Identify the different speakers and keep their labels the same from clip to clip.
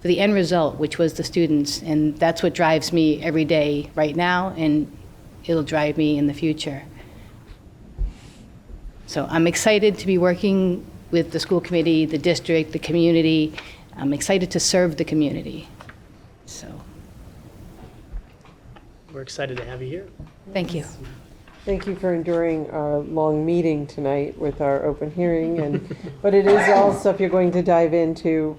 Speaker 1: for the end result, which was the students. And that's what drives me every day right now, and it'll drive me in the future. So I'm excited to be working with the school committee, the district, the community. I'm excited to serve the community. So,
Speaker 2: We're excited to have you here.
Speaker 1: thank you.
Speaker 3: Thank you for enduring our long meeting tonight with our open hearing and, but it is all stuff you're going to dive into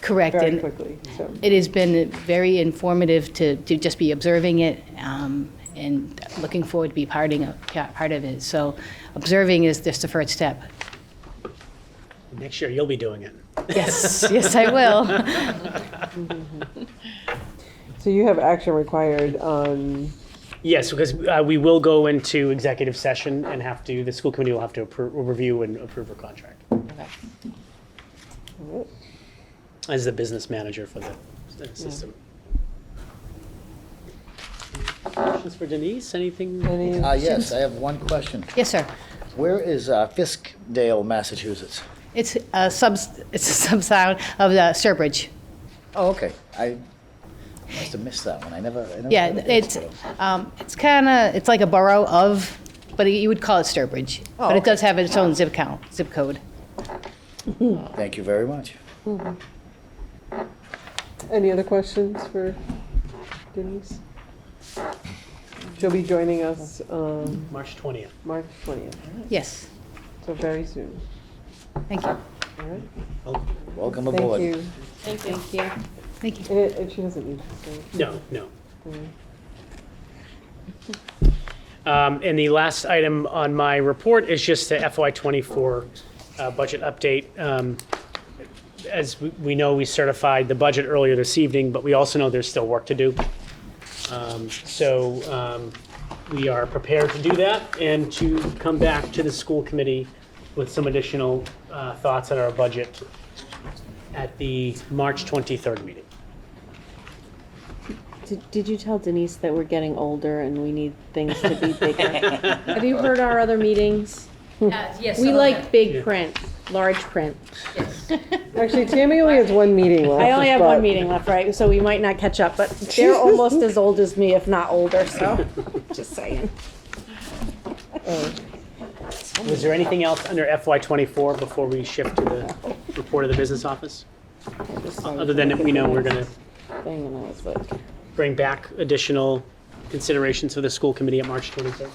Speaker 1: Correct.
Speaker 3: very
Speaker 1: And
Speaker 3: quickly, so.
Speaker 1: it has been very informative to, to just be observing it um, and looking forward to be parting of, yeah, part of it. So observing is just the first step.
Speaker 2: Next year, you'll be doing it.
Speaker 1: Yes, yes, I will.
Speaker 3: So you have action required um, on,
Speaker 2: Yes, because uh, we will go into executive session and have to, the school committee will have to appro- review and approve her contract as the business manager for the the system. Questions for Denise? Anything?
Speaker 3: any,
Speaker 4: Uh, yes, I have one question.
Speaker 1: Yes, sir.
Speaker 4: Where is uh, Fiskdale, Massachusetts?
Speaker 1: It's a sub, it's a sub-sound of the Sturbridge.
Speaker 4: Oh, okay. I must have missed that one. I never. I never
Speaker 1: Yeah,
Speaker 4: heard of
Speaker 1: it's,
Speaker 4: Fiskdale.
Speaker 1: um, it's kind of, it's like a borough of, but you would call it Sturbridge. But it does have its own zip count, zip code.
Speaker 4: Thank you very much.
Speaker 3: any other questions for Denise? She'll be joining us, um,
Speaker 2: March 20th.
Speaker 3: March twentieth,
Speaker 1: Yes,
Speaker 3: so very soon,
Speaker 1: thank you,
Speaker 3: all right?
Speaker 4: Welcome
Speaker 3: Thank
Speaker 4: aboard.
Speaker 3: you.
Speaker 1: thank you.
Speaker 3: And, it- and she doesn't need to stay.
Speaker 2: No, no. Um, And the last item on my report is just the FY '24 uh, budget update. Um, As we- we know, we certified the budget earlier this evening, but we also know there's still work to do. Um, So um, we are prepared to do that and to come back to the school committee with some additional uh, thoughts on our budget at the March 23rd meeting.
Speaker 5: Did, did you tell Denise that we're getting older and we need things to be bigger? Hmm. Have you heard our other meetings?
Speaker 1: Yes.
Speaker 5: We like big print, large print.
Speaker 3: Actually, Tammy only has one meeting left.
Speaker 5: I only have one
Speaker 3: but-
Speaker 5: meeting left, right? So we might not catch up, but they're almost as old as me, if not older, so, just saying.
Speaker 2: Was there anything else under FY '24 before we shift to the report of the business office? Other than that we know we're going to
Speaker 5: Thing and I was like,
Speaker 2: bring back additional considerations for the school committee at March 23rd?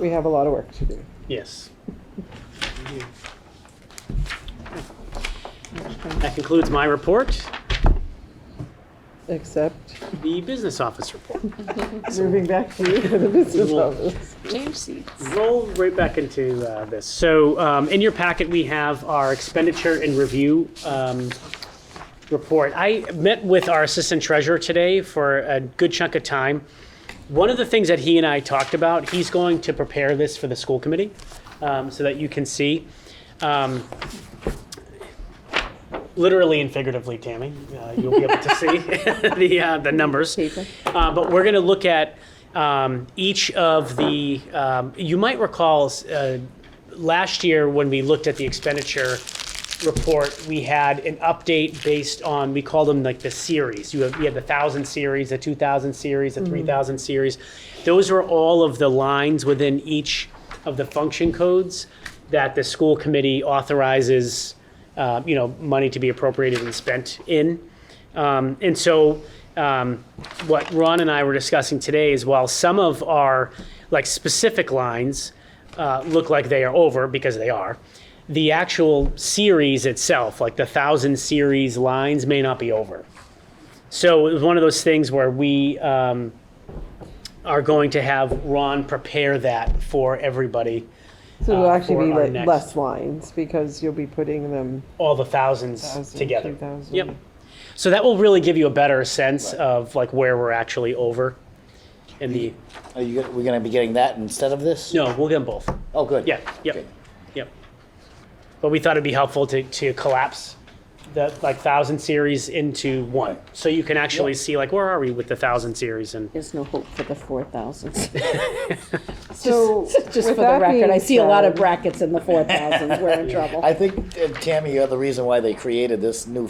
Speaker 3: We have a lot of work to do.
Speaker 2: Yes. That concludes my report,
Speaker 3: Except
Speaker 2: the business office report.
Speaker 3: moving back to you for the business
Speaker 2: Well-
Speaker 3: office.
Speaker 2: Roll right back into uh, this. So um, in your packet, we have our expenditure and review um, report. I met with our assistant treasurer today for a good chunk of time. One of the things that he and I talked about, he's going to prepare this for the school committee um, so that you can see. Um, literally and figuratively, Tammy, uh, you'll be able to see the, uh, the numbers. Uh, but we're going to look at um, each of the, um, you might recall uh, last year when we looked at the expenditure report, we had an update based on, we called them like the series. You have, you had the thousand series, the two thousand series, the three thousand series. Those were all of the lines within each of the function codes that the school committee authorizes, uh, you know, money to be appropriated and spent in. Um, and so, um, what Ron and I were discussing today is while some of our like specific lines uh, look like they are over because they are, the actual series itself, like the thousand series lines, may not be over. So it was one of those things where we um, are going to have Ron prepare that for everybody.
Speaker 3: So it'll
Speaker 2: uh,
Speaker 3: actually be
Speaker 2: for our
Speaker 3: like
Speaker 2: next-
Speaker 3: less lines because you'll be putting them
Speaker 2: all the thousands
Speaker 3: 1,000,
Speaker 2: together.
Speaker 3: 2,000.
Speaker 2: Yep. So that will really give you a better sense of like where we're actually over. In the
Speaker 4: Are you? We're going to be getting that instead of this?
Speaker 2: no, we'll get them both.
Speaker 4: Oh, good.
Speaker 2: Yeah. Yep.
Speaker 4: Okay.
Speaker 2: Yep. But we thought it'd be helpful to, to collapse the like thousand series into one, so you can actually see like where are we with the thousand series and
Speaker 5: there's no hope for the four thousands.
Speaker 3: So
Speaker 5: Just for the record, I see a lot of brackets in the four thousands, we're in trouble.
Speaker 4: I think uh, Tammy, you're the reason why they created this new